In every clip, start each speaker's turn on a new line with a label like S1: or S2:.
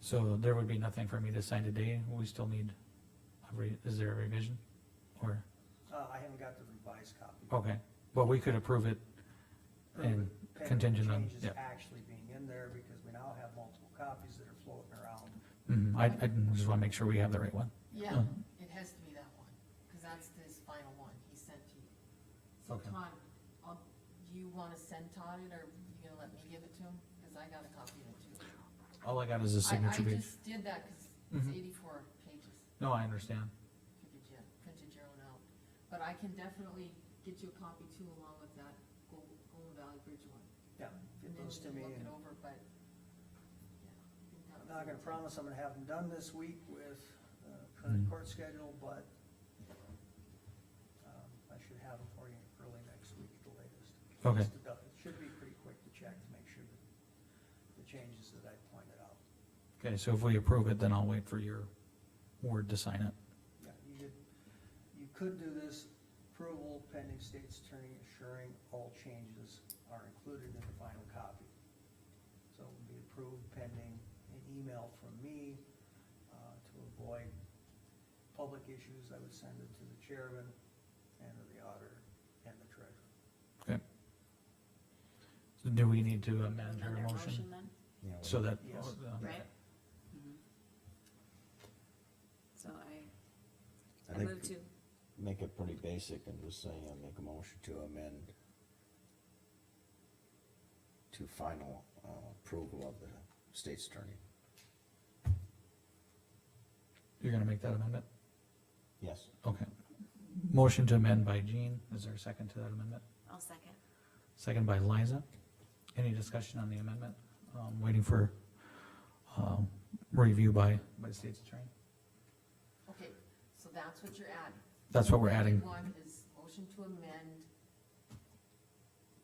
S1: So there would be nothing for me to sign today, we still need, a re- is there a revision? Or,
S2: Uh, I haven't got the revised copy.
S1: okay, well, we could approve it,
S2: Or
S1: and
S2: the
S1: contingent on-
S2: Changes
S1: yeah.
S2: actually being in there, because we now have multiple copies that are floating around.
S1: Mhm, I, I just wanna make sure we have the right one.
S3: Yeah,
S1: Mhm.
S3: it has to be that one, because that's his final one he sent to you. So
S1: Okay.
S3: Todd, I'll- do you want to send Todd it, or you gonna let me give it to him? Because I got a copy of it too.
S1: All I got is a
S3: I-
S1: signature
S3: I
S1: page.
S3: just did that because it's
S1: Mhm.
S3: eighty-four pages,
S1: No, I understand,
S3: printed your, printed your own out. But I can definitely get you a copy too, along with that Gold, Golden Valley Bridge one.
S2: Yeah,
S3: And
S2: get
S3: then
S2: those to
S3: we
S2: me.
S3: can
S2: and
S3: Look it over, but, yeah. I think that
S2: I'm not
S3: was the
S2: gonna
S3: intent.
S2: promise I'm gonna have them done this week with uh, current
S1: Mm.
S2: court schedule, but um, I should have them for you early next week at the latest.
S1: Okay.
S2: Just to dou- It should be pretty quick to check to make sure that the changes that I pointed out.
S1: okay, so if we approve it, then I'll wait for your word to sign it.
S2: Yeah, you could, you could do this approval pending state's attorney assuring all changes are included in the final copy. So it would be approved pending an email from me, uh, to avoid public issues, I would send it to the chairman and to the auditor and the treasurer.
S1: So Do we need to amend her motion
S4: then?
S5: you know,
S1: so that?
S2: Yes.
S1: uh,
S4: Right. Mm-hmm. So I,
S5: I
S4: I move
S5: think
S4: to,
S5: make it pretty basic and just say, uh, make a motion to amend to final, uh, approval of the state's attorney.
S1: You're gonna make that amendment?
S5: Yes,
S1: Okay. Motion to amend by Jean, is there a second to that amendment?
S4: I'll second.
S1: Second by Liza. Any discussion on the amendment? Um, waiting for, um, review by, by state's attorney?
S3: Okay, so that's what you're adding.
S1: That's what we're adding,
S3: One is motion to amend.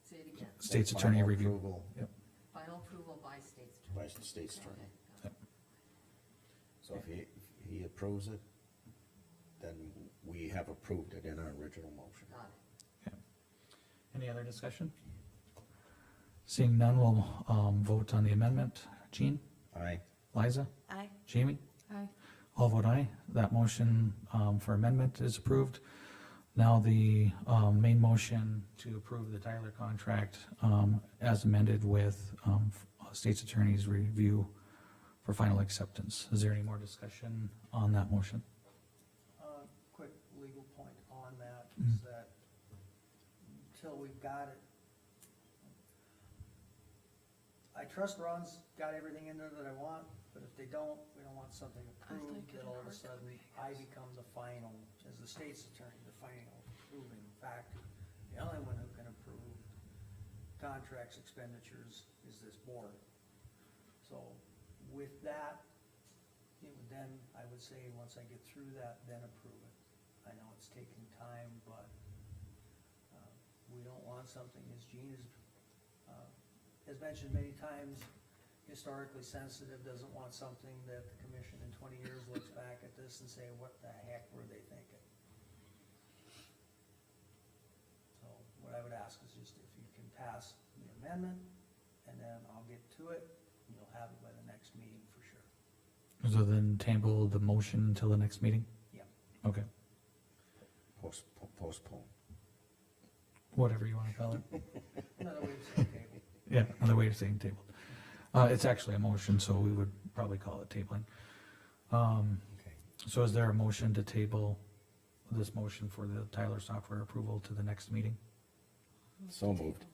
S3: Say it again,
S1: state's
S5: Make
S1: attorney
S5: final
S1: review.
S5: approval
S3: final approval by state's
S5: By
S3: attorney.
S5: the state's attorney.
S3: Okay,
S5: So if he, if he approves it, then we have approved it in our original motion.
S3: Got it.
S1: Any other discussion? Seeing none, we'll, um, vote on the amendment. Jean,
S5: Aye,
S1: Liza,
S4: Aye.
S1: Jamie?
S3: Aye.
S1: All vote aye. That motion, um, for amendment is approved. Now the, um, main motion to approve the Tyler contract, um, as amended with, um, state's attorney's review for final acceptance. Is there any more discussion on that motion?
S2: Uh, Quick legal point on that is that until we've got it, I trust Ron's got everything in there that I want, but if they don't, we don't want something approved that all of a sudden I become the final, as the state's attorney, the final approving factor. The only one who can approve contracts, expenditures is this board. So with that, it would then, I would say, once I get through that, then approve it. I know it's taking time, but, uh, we don't want something, as Gene has, uh, has mentioned many times, historically sensitive, doesn't want something that the commission in twenty years looks back at this and say, what the heck were they thinking? So what I would ask is just if you can pass the amendment, and then I'll get to it, and you'll have it by the next meeting for sure.
S1: So then table the motion until the next meeting?
S2: Yep.
S1: Okay,
S5: Post postpone.
S1: whatever you wanna call it.
S2: Another way of saying table.
S1: Yeah, another way of saying table. Uh, it's actually a motion, so we would probably call it tabling. Um,
S5: Okay.
S1: So is there a motion to table this motion for the Tyler software approval to the next meeting?
S5: So moved.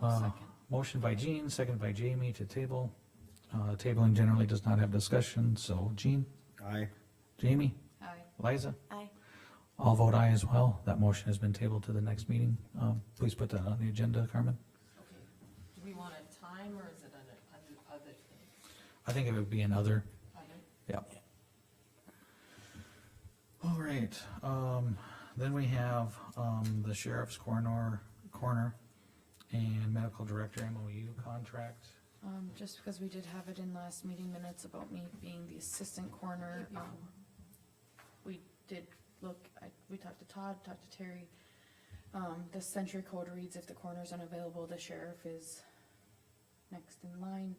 S3: I'll
S1: Uh,
S3: second.
S1: Motion by Jean, second by Jamie to table. Uh, tabling generally does not have discussion, so Jean,
S5: Aye.
S1: Jamie,
S3: Aye.
S1: Liza,
S4: Aye.
S1: all vote aye as well. That motion has been tabled to the next meeting. Um, please put that on the agenda, Carmen.
S3: Okay, do we want a time, or is it under, under other things?
S1: I think it would be another,
S3: Other?
S1: yeah. All right, um, then we have, um, the sheriff's coroner, coroner and medical director MOU contract.
S6: Um, just because we did have it in last meeting minutes about me being the assistant coroner, um, we did look, I, we talked to Todd, talked to Terry. Um, the century code reads if the coroner's unavailable, the sheriff is next in line.